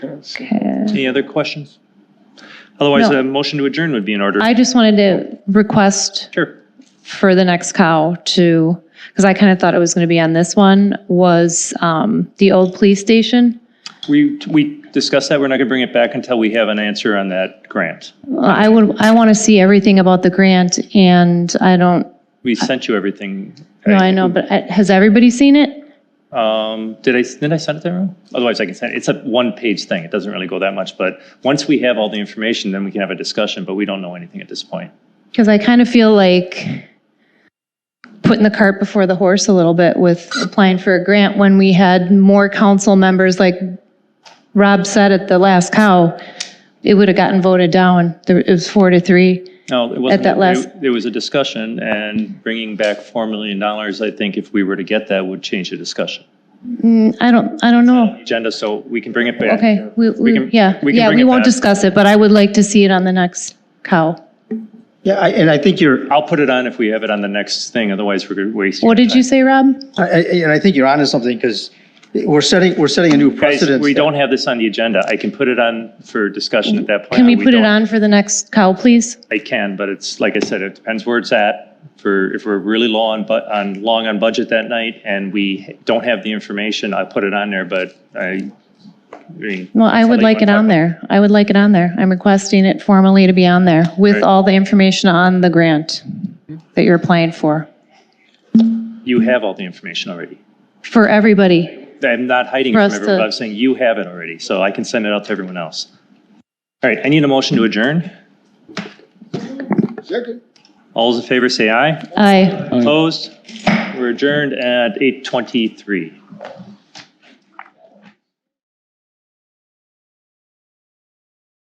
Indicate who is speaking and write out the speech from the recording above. Speaker 1: Okay.
Speaker 2: Any other questions? Otherwise,
Speaker 1: No.
Speaker 2: a motion to adjourn would be in order.
Speaker 1: I just wanted to request
Speaker 2: Sure.
Speaker 1: for the next cow to, because I kind of thought it was going to be on this one, was um, the old police station.
Speaker 2: We, we discussed that. We're not going to bring it back until we have an answer on that grant.
Speaker 1: I would, I want to see everything about the grant and I don't,
Speaker 2: We sent you everything.
Speaker 1: no, I know, but uh, has everybody seen it?
Speaker 2: Um, did I, did I send it there? Ron? Otherwise I can send, it. it's a one-page thing. It doesn't really go that much, but once we have all the information, then we can have a discussion, but we don't know anything at this point.
Speaker 1: Because I kind of feel like putting the cart before the horse a little bit with applying for a grant when we had more council members, like Rob said at the last cow, it would have gotten voted down. There- It was four to three.
Speaker 2: No, it wasn't.
Speaker 1: that last-
Speaker 2: there- There was a discussion and bringing back $4 million, I think if we were to get that, would change the discussion.
Speaker 1: I don't, I don't know.
Speaker 2: Agenda, so we can bring it back.
Speaker 1: Oh. Okay, we, we,
Speaker 2: can-
Speaker 1: yeah,
Speaker 2: we can
Speaker 1: yeah,
Speaker 2: bring
Speaker 1: we
Speaker 2: it
Speaker 1: won't
Speaker 2: back.
Speaker 1: discuss it, but I would like to see it on the next cow.
Speaker 3: Yeah, I- and I think you're,
Speaker 2: I'll put it on if we have it on the next thing, otherwise we're gonna waste.
Speaker 1: What did you say, Rob?
Speaker 3: I- I- and I think you're onto something because we're setting, we're setting a new
Speaker 2: Guys,
Speaker 3: precedent.
Speaker 2: we don't have this on the agenda. I can put it on for discussion at that point.
Speaker 1: Can we put it
Speaker 2: don't-
Speaker 1: on for the next cow, please?
Speaker 2: I can, but it's, like I said, it depends where it's at. For, if we're really low on, bu- on, long on budget that night and we don't have the information, I'll put it on there, but I, I mean.
Speaker 1: Well, I
Speaker 2: it's
Speaker 1: would
Speaker 2: something you
Speaker 1: like it
Speaker 2: wanna talk
Speaker 1: on
Speaker 2: about.
Speaker 1: there. I would like it on there. I'm requesting it formally to be on there with
Speaker 2: Right.
Speaker 1: all the information on the grant that you're applying for,
Speaker 2: You have all the information already.
Speaker 1: for everybody.
Speaker 2: I'm not hiding
Speaker 1: For
Speaker 2: from
Speaker 1: us
Speaker 2: everyone,
Speaker 1: to-
Speaker 2: but I'm saying you have it already, so I can send it out to everyone else. All right, I need a motion to adjourn.
Speaker 3: Second.
Speaker 2: All those in favor say aye.
Speaker 1: Aye.
Speaker 2: Opposed? We're adjourned at 8:23.